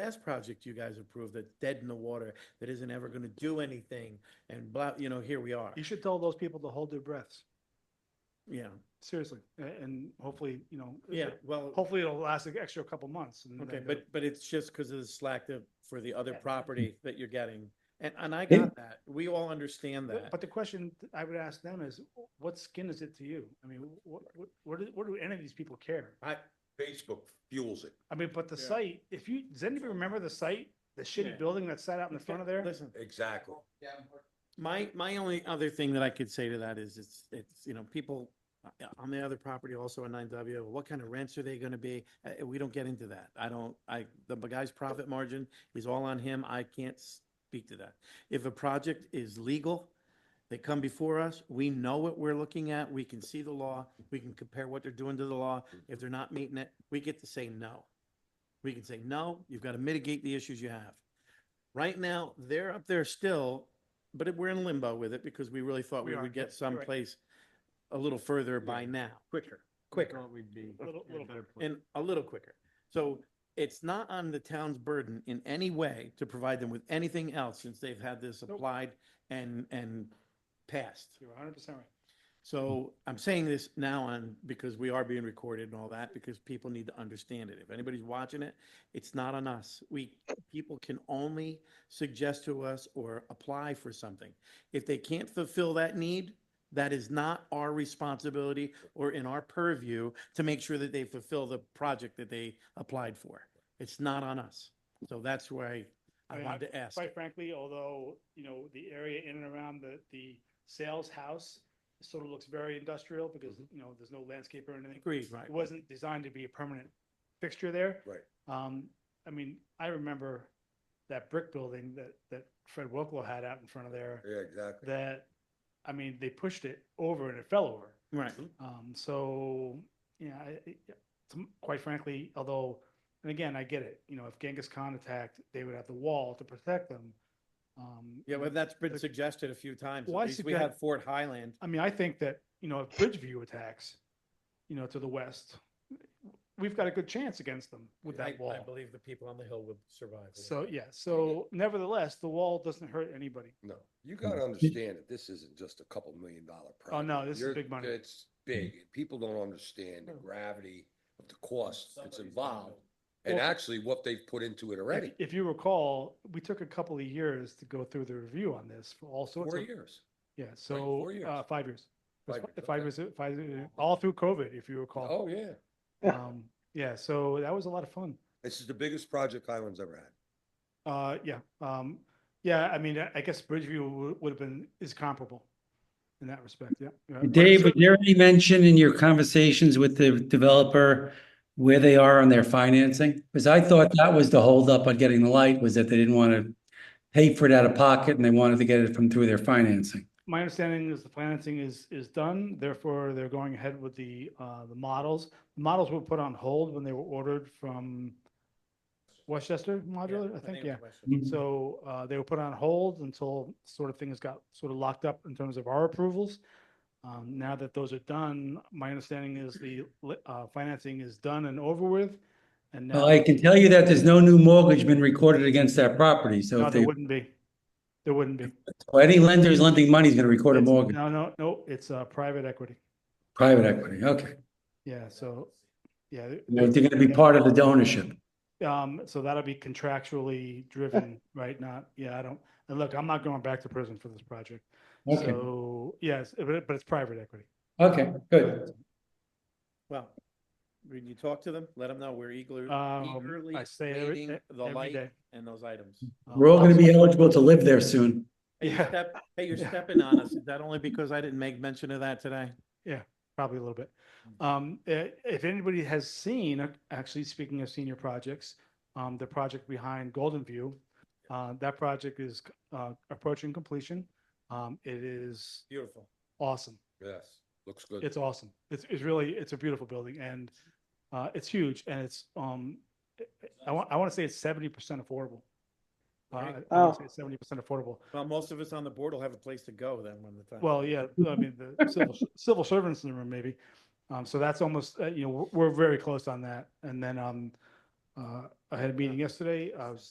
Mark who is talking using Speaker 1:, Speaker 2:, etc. Speaker 1: last project you guys approved that's dead in the water, that isn't ever gonna do anything, and blah, you know, here we are.
Speaker 2: You should tell those people to hold their breaths,
Speaker 1: Yeah,
Speaker 2: seriously, a- and hopefully, you know. it-
Speaker 1: yeah,
Speaker 2: it-
Speaker 1: well,
Speaker 2: Hopefully it'll last an extra couple months. and
Speaker 1: okay,
Speaker 2: then
Speaker 1: but, but it's just because of the slack that, for the other property that you're getting. And, and I
Speaker 3: Yeah.
Speaker 1: got that. We all understand
Speaker 2: But-
Speaker 1: that.
Speaker 2: But the question th- I would ask them is, wh- what skin is it to you? I mean, what, what, what do, what do any of these people care?
Speaker 1: I,
Speaker 4: Facebook fuels it.
Speaker 2: I mean, but the
Speaker 1: Yeah.
Speaker 2: site, if you, does anybody remember the site, the
Speaker 1: Yeah.
Speaker 2: shitty building that sat out in the front of there?
Speaker 1: listen,
Speaker 4: Exactly.
Speaker 1: My, my only other thing that I could say to that is it's, it's, you know, people uh, on the other property also in nine W, what kind of rents are they gonna be? Uh, we don't get into that. I don't, I, the guy's profit margin is all on him. I can't speak to that. If a project is legal, they come before us, we know what we're looking at, we can see the law, we can compare what they're doing to the law. If they're not meeting it, we get to say no. We can say, no, you've got to mitigate the issues you have. Right now, they're up there still, but it- we're in limbo with it because we really thought
Speaker 2: We
Speaker 1: we
Speaker 2: are,
Speaker 1: would get
Speaker 2: you're right.
Speaker 1: someplace a little further by now,
Speaker 5: Quicker.
Speaker 1: quicker,
Speaker 5: We'd be
Speaker 2: Little-
Speaker 5: in a
Speaker 2: little-
Speaker 5: better place.
Speaker 1: and a little quicker. So it's not on the town's burden in any way to provide them with anything else since they've had this
Speaker 2: Nope.
Speaker 1: applied and, and passed.
Speaker 2: You're hundred percent right.
Speaker 1: So I'm saying this now on, because we are being recorded and all that, because people need to understand it. If anybody's watching it, it's not on us. We, people can only suggest to us or apply for something. If they can't fulfill that need, that is not our responsibility or in our purview to make sure that they fulfill the project that they applied for. It's not on us. So that's why I
Speaker 2: I-
Speaker 1: wanted to ask.
Speaker 2: Quite frankly, although, you know, the area in and around the, the sales house sort of looks very industrial because,
Speaker 1: Mm-hmm.
Speaker 2: you know, there's no landscape or anything.
Speaker 1: Agreed, right?
Speaker 2: It wasn't designed to be a permanent fixture there.
Speaker 4: Right.
Speaker 2: Um, I mean, I remember that brick building that, that Fred Wokel had out in front of there
Speaker 4: Yeah, exactly.
Speaker 2: that, I mean, they pushed it over and it fell over.
Speaker 1: Right.
Speaker 2: Um, so, yeah, I, it- to- quite frankly, although, and again, I get it, you know, if Genghis Khan attacked, they would have the wall to protect them. Um,
Speaker 1: Yeah, well, that's been
Speaker 2: the-
Speaker 1: suggested a few times. At
Speaker 2: Well, I
Speaker 1: least we
Speaker 2: suggest-
Speaker 1: have Fort Highland.
Speaker 2: I mean, I think that, you know, if Bridgeview attacks, you know, to the west, we've got a good chance against them with
Speaker 1: I-
Speaker 2: that wall.
Speaker 1: I believe the people on the hill would survive.
Speaker 2: So, yeah, so nevertheless, the wall doesn't hurt anybody.
Speaker 4: No, you gotta understand that this isn't just a couple million dollar project.
Speaker 2: Oh, no, this is
Speaker 4: You're-
Speaker 2: big money.
Speaker 4: It's big. People don't understand the
Speaker 2: No.
Speaker 4: gravity of the cost that's
Speaker 1: Somebody's
Speaker 4: involved
Speaker 1: gotta-
Speaker 4: and
Speaker 2: Well-
Speaker 4: actually what they've put into it
Speaker 2: If-
Speaker 4: already.
Speaker 2: If you recall, we took a couple of years to go through the review on this for all sorts
Speaker 4: Four
Speaker 2: of,
Speaker 4: years.
Speaker 2: yeah, so,
Speaker 4: four years.
Speaker 2: uh, five years. It was
Speaker 4: Five
Speaker 2: fi-
Speaker 4: years,
Speaker 2: Five
Speaker 4: okay.
Speaker 2: years, five, years, all through COVID, if you recall.
Speaker 4: Oh, yeah.
Speaker 2: Um, yeah, so that was a lot of fun.
Speaker 4: This is the biggest project Highland's ever had.
Speaker 2: Uh, yeah, um, yeah, I mean, I- I guess Bridgeview would, would have been, is comparable in that respect, yeah. yeah. But
Speaker 3: Dave,
Speaker 2: so-
Speaker 3: was there any mention in your conversations with the developer where they are on their financing? Because I thought that was the holdup on getting the light, was that they didn't want to pay for it out of pocket and they wanted to get it from through their financing.
Speaker 2: My understanding is the financing is, is done, therefore they're going ahead with the, uh, the models. The Models were put on hold when they were ordered from Westchester Modular, I think, yeah. So uh, they were put on hold until sort of things got sort of locked up in terms of our approvals. Um, Now that those are done, my understanding is the li- uh, financing is done and over with. And now,
Speaker 3: Well, I can tell you that there's no new mortgage been recorded against that property, so
Speaker 2: no,
Speaker 3: if
Speaker 2: there
Speaker 3: they,
Speaker 2: wouldn't be. There wouldn't be.
Speaker 3: well, any lender who's lending money is going to record a
Speaker 2: It's-
Speaker 3: mortgage,
Speaker 2: No, no, no, it's uh, private equity.
Speaker 3: private equity, okay.
Speaker 2: Yeah, so, yeah. th-
Speaker 3: They're going to be part of the donorship.
Speaker 2: Um, So that'll be contractually driven, right? Not, yeah, I don't, and look, I'm not going back to prison for this project.
Speaker 3: Okay,
Speaker 2: So, yes, but it- but it's private equity.
Speaker 3: okay, good.
Speaker 1: Well, when you talk to them, let them know we're eagerly,
Speaker 2: Um,
Speaker 1: eagerly
Speaker 2: I say every-
Speaker 1: waiting
Speaker 2: e-
Speaker 1: the
Speaker 2: every
Speaker 1: light
Speaker 2: day.
Speaker 1: and those items.
Speaker 2: Um,
Speaker 3: We're all going to be eligible to live there soon.
Speaker 1: Hey, you're
Speaker 2: Yeah.
Speaker 1: step- hey, you're
Speaker 2: Yeah.
Speaker 1: stepping on us. Is that only because I didn't make mention of that today?
Speaker 2: Probably a little bit. Um, eh, if anybody has seen, uh, actually, speaking of senior projects, um, the project behind Golden View, uh, that project is, uh, approaching completion. Um, it is
Speaker 1: Beautiful.
Speaker 2: awesome.
Speaker 4: Yes, looks good.
Speaker 2: It's awesome. It's, it's really, it's a beautiful building and, uh, it's huge and it's, um, eh, eh, I want, I want to say it's seventy percent affordable. Uh,
Speaker 1: Great.
Speaker 2: I want to say it's seventy percent affordable.
Speaker 1: Well, most of us on the board will have a place to go then when the time.
Speaker 2: Well, yeah, I mean, the civil, civil servants in the room, maybe. Um, so that's almost, uh, you know, we're, we're very close on that. And then, um, uh, I had a meeting yesterday, I was